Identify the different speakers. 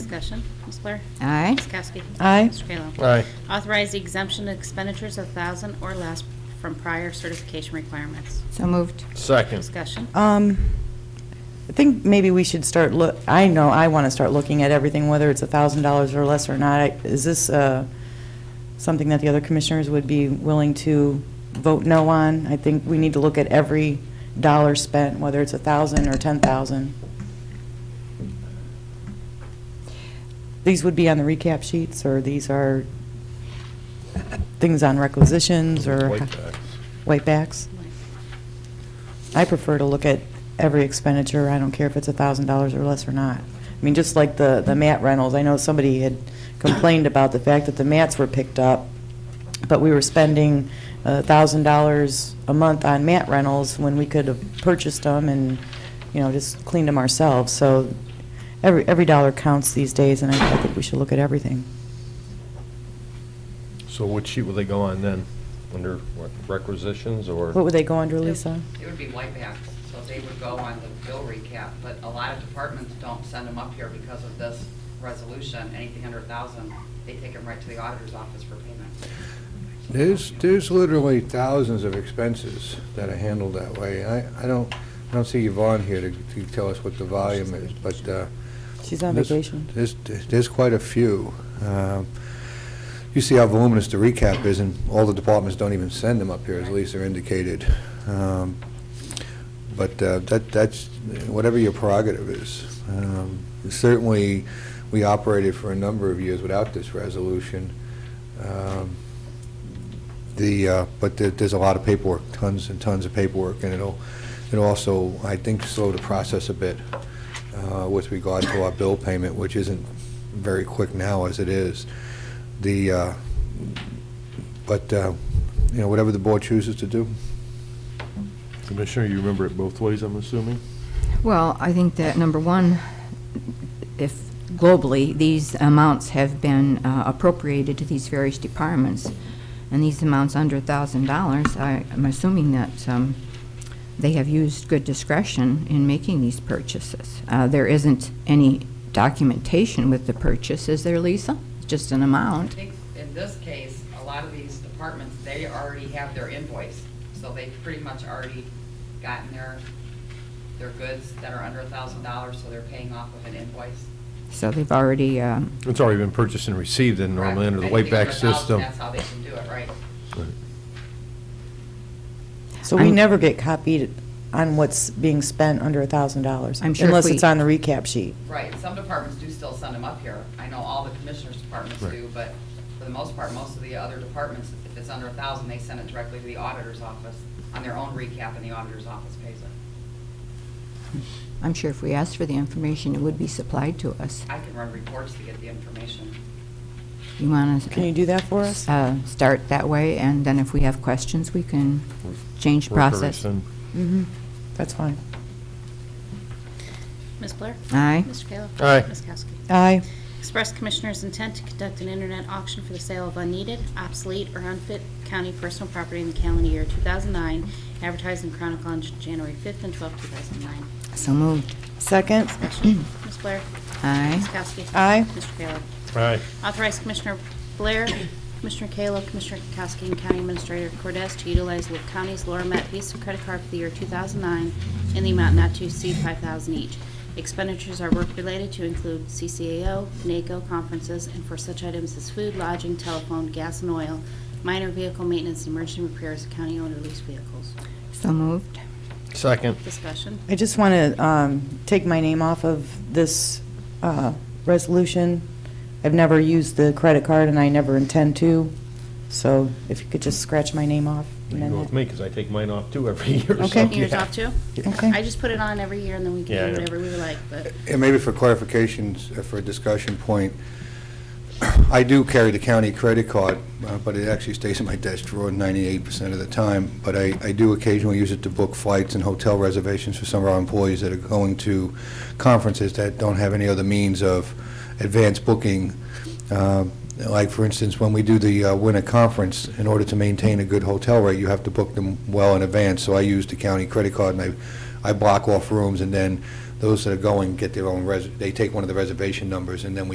Speaker 1: Discussion, Ms. Blair?
Speaker 2: Aye.
Speaker 1: Ms. Kowski?
Speaker 3: Aye.
Speaker 1: Mr. Kayla?
Speaker 4: Aye.
Speaker 1: Authorize the exemption of expenditures of 1000 or less from prior certification requirements.
Speaker 2: So moved.
Speaker 4: Second.
Speaker 1: Discussion,
Speaker 3: Um, I think maybe we should start look, I know, I want to start looking at everything, whether it's a thousand dollars or less or not. I- Is this, uh, something that the other commissioners would be willing to vote no on? I think we need to look at every dollar spent, whether it's a thousand or ten thousand. These would be on the recap sheets, or these are things on requisitions, or?
Speaker 4: Whitebacks.
Speaker 3: Whitebacks? I prefer to look at every expenditure, I don't care if it's a thousand dollars or less or not. I mean, just like the, the mat rentals, I know somebody had complained about the fact that the mats were picked up, but we were spending a thousand dollars a month on mat rentals when we could have purchased them and, you know, just cleaned them ourselves, so every, every dollar counts these days, and I I think we should look at everything.
Speaker 4: So what sheet will they go on then? Under what, requisitions or?
Speaker 3: What would they go under, Lisa?
Speaker 5: It would be whitebacks, so they would go on the bill recap, but a lot of departments don't send them up here because of this resolution, anything under a thousand, they take them right to the auditor's office for payment.
Speaker 6: There's, there's literally thousands of expenses that are handled that way. I, I don't, I don't see Yvonne here to, to tell us what the volume is, but, uh,
Speaker 3: She's on
Speaker 6: This-
Speaker 3: vacation.
Speaker 6: There's, there's quite a few. Um, You see how voluminous the recap is, and all the departments don't even send them up here, as Lisa indicated. Um, But uh, that, that's, whatever your prerogative is. Um, Certainly, we operated for a number of years without this resolution. Um, The, uh, but there- there's a lot of paperwork, tons and tons of paperwork, and it'll, it'll also, I think, slow the process a bit uh, with regard to our bill payment, which isn't very quick now as it is. The, uh, but, uh, you know, whatever the board chooses to do.
Speaker 4: Commissioner, you remember it both ways, I'm assuming?
Speaker 2: Well, I think that, number one, if globally, these amounts have been uh, appropriated to these various departments, and these amounts under $1,000, I- I'm assuming that um, they have used good discretion in making these purchases. Uh, There isn't any documentation with the purchase, is there, Lisa? It's Just an
Speaker 5: I
Speaker 2: amount?
Speaker 5: think in this case, a lot of these departments, they already have their invoice, so they've pretty much already gotten their, their goods that are under a thousand dollars, so they're paying off of an invoice.
Speaker 2: So they've already, um,
Speaker 4: It's already been purchased and received and normally under the
Speaker 5: Correct. Anything
Speaker 4: whiteback
Speaker 5: under a thousand,
Speaker 4: system.
Speaker 5: That's how they can do it, right?
Speaker 3: So we
Speaker 2: I'm-
Speaker 3: never get copied on what's being spent under a thousand dollars.
Speaker 2: I'm sure if
Speaker 3: Unless
Speaker 2: we-
Speaker 3: it's on the recap sheet.
Speaker 5: Right, some departments do still send them up here. I know all the commissioners' departments
Speaker 4: Right.
Speaker 5: do, but for the most part, most of the other departments, if it's under a thousand, they send it directly to the auditor's office on their own recap, and the auditor's office pays it.
Speaker 2: I'm sure if we asked for the information, it would be supplied to us.
Speaker 5: I can run reports to get the information.
Speaker 2: You want to...
Speaker 3: Can you do that for us?
Speaker 2: uh, start that way, and then if we have questions, we can change
Speaker 4: Work or
Speaker 2: process.
Speaker 4: rescind.
Speaker 3: Mm-hmm. That's fine.
Speaker 1: Ms. Blair?
Speaker 2: Aye.
Speaker 1: Mr. Kayla?
Speaker 4: Aye.
Speaker 1: Ms. Kowski?
Speaker 3: Aye.
Speaker 1: Express Commissioners' intent to conduct an internet auction for the sale of unneeded, obsolete, or unfit county personal property in the calendar year 2009, advertised in Chronicle on Jan- January 5th and 12th, 2009.
Speaker 2: So moved.
Speaker 3: Second?
Speaker 1: Discussion, Ms. Blair? Ms.
Speaker 2: Aye.
Speaker 1: Kowski?
Speaker 3: Aye.
Speaker 1: Mr. Kayla?
Speaker 4: Aye.
Speaker 1: Authorize Commissioner Blair, Commissioner Kayla, Commissioner Kukowski, and County Administrator Cordes to utilize Lake County's Laura Matt Visa credit card for the year 2009 in the amount not to exceed 5000 each. Expenditures are work-related to include CCAO, NACO conferences, and for such items as food, lodging, telephone, gas, and oil, minor vehicle maintenance, and emergency repairs of county-owned or leased vehicles.
Speaker 2: So moved.
Speaker 4: Second.
Speaker 1: Discussion.
Speaker 3: I just want to um, take my name off of this uh, resolution. I've never used the credit card, and I never intend to, so if you could just scratch my name off.
Speaker 4: You
Speaker 3: and
Speaker 4: can
Speaker 3: then
Speaker 4: go with me because I take mine off too every year. so,
Speaker 3: Okay.
Speaker 1: Yours
Speaker 4: yeah.
Speaker 1: off, too?
Speaker 3: Okay.
Speaker 1: I just put it on every year, and then we
Speaker 4: Yeah, I
Speaker 1: can do
Speaker 4: know.
Speaker 1: whatever we like, but
Speaker 6: And maybe for clarifications, uh, for a discussion point, I do carry the county credit card, uh, but it actually stays in my desk drawer 98% of the time, but I I do occasionally use it to book flights and hotel reservations for some of our employees that are going to conferences that don't have any other means of advanced booking. Um, Like, for instance, when we do the uh, winter conference, in order to maintain a good hotel rate, you have to book them well in advance, so I use the county credit card, and I I block off rooms, and then those that are going get their own, res. they take one of the reservation numbers, and then we